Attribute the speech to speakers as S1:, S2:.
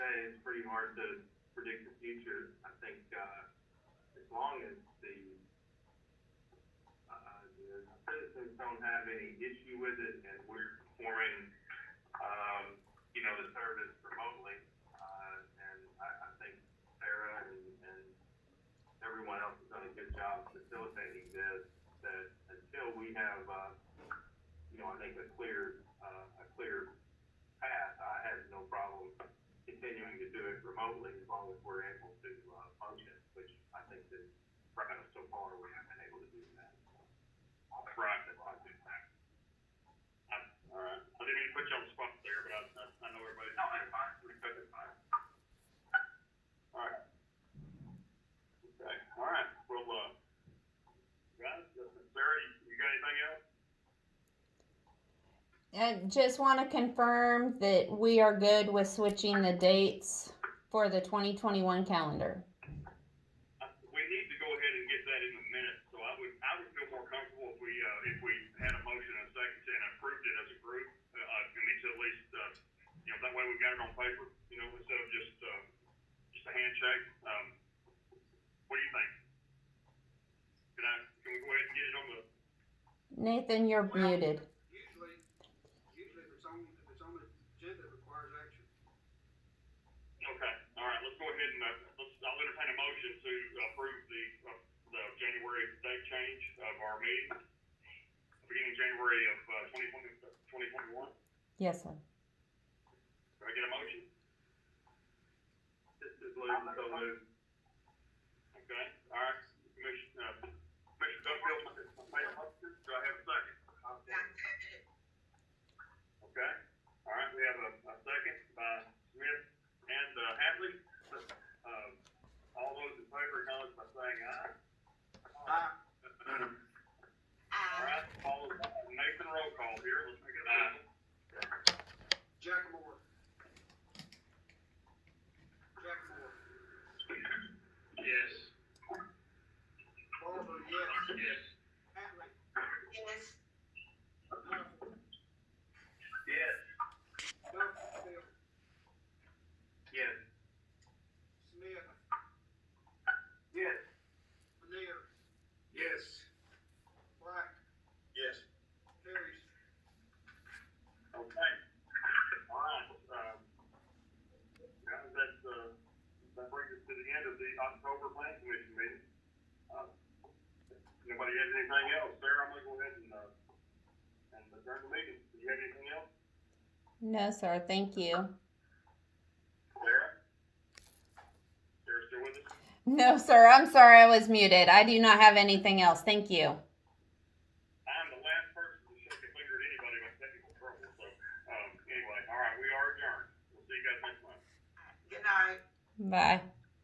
S1: hard to predict the future. I think, uh, as long as the, uh, the citizens don't have any issue with it and we're performing, um, you know, the service remotely, uh, and I, I think Sarah and, and everyone else has done a good job facilitating this, that until we have, uh, you know, I think a clear, uh, a clear path, I have no problem continuing to do it remotely as long as we're able to, uh, function, which I think that, right now, so far, we haven't been able to do that. Uh, Right, that's not good.
S2: Alright, I didn't mean to put you on the spot there, but I, I, I know everybody's.
S1: No, it's fine, we took it fine.
S2: Alright. Okay, alright, well, uh, guys, Sarah, you, you got anything else?
S3: I just want to confirm that we are good with switching the dates for the 2021 calendar.
S2: I- We need to go ahead and get that in the minutes, so I would, I would feel more comfortable if we, uh, if we had a motion and a second and approved it as a group. Uh, I mean, to at least, uh, you know, that way we got it on paper, you know, instead of just, uh, just a handshake. Um, what do you think? Can I, can we go ahead and get it on the,
S3: Nathan, you're
S4: Well-
S3: muted.
S4: Usually, usually if it's on, if it's on the agenda, it requires action.
S2: Okay, all right, let's go ahead and, uh, let's, I'll entertain a motion to approve the, uh, the January date change of our meeting, beginning January of, uh, twenty twenty, twenty twenty-one.
S3: Yes, sir.
S2: Do I get a motion?
S1: This is Lou, so Lou,
S2: Okay, all right, Commissioner, uh, Commissioner Duffield, made a motion, do I have a second? Okay, all right, we have a, a second by Smith and, uh, Hadley. Uh, all those in favor, acknowledge by saying aye.
S4: Aye.
S2: All right, Paul, Nathan, roll call here, let's make it official.
S4: Jack Moore. Jack Moore.
S2: Yes.
S4: Barber, yes.
S2: Yes.
S4: Hatley,
S5: Yes.
S4: Humphrey,
S2: Yes.
S4: Duffield,
S1: yes.
S4: Smith,
S1: Yes.
S4: Lanier,
S1: Yes.
S4: Black,
S2: Yes.
S4: Harris,
S2: Okay. All right, um, guys, that, uh, that brings us to the end of the October Plan Commission meeting. Uh, if Nobody has anything else? Sarah, I'm gonna go ahead and, uh, and adjourn the meeting. Do you have anything else?
S3: No, sir. Thank you.
S2: Sarah? Sarah still with us?
S3: No, sir. I'm sorry. I was muted. I do not have anything else. Thank you.
S2: I'm the last person to shake a finger at anybody with technical trouble, so, um, anyway, all right, we are adjourned. We'll see you guys next month.
S5: Good night.
S3: Bye.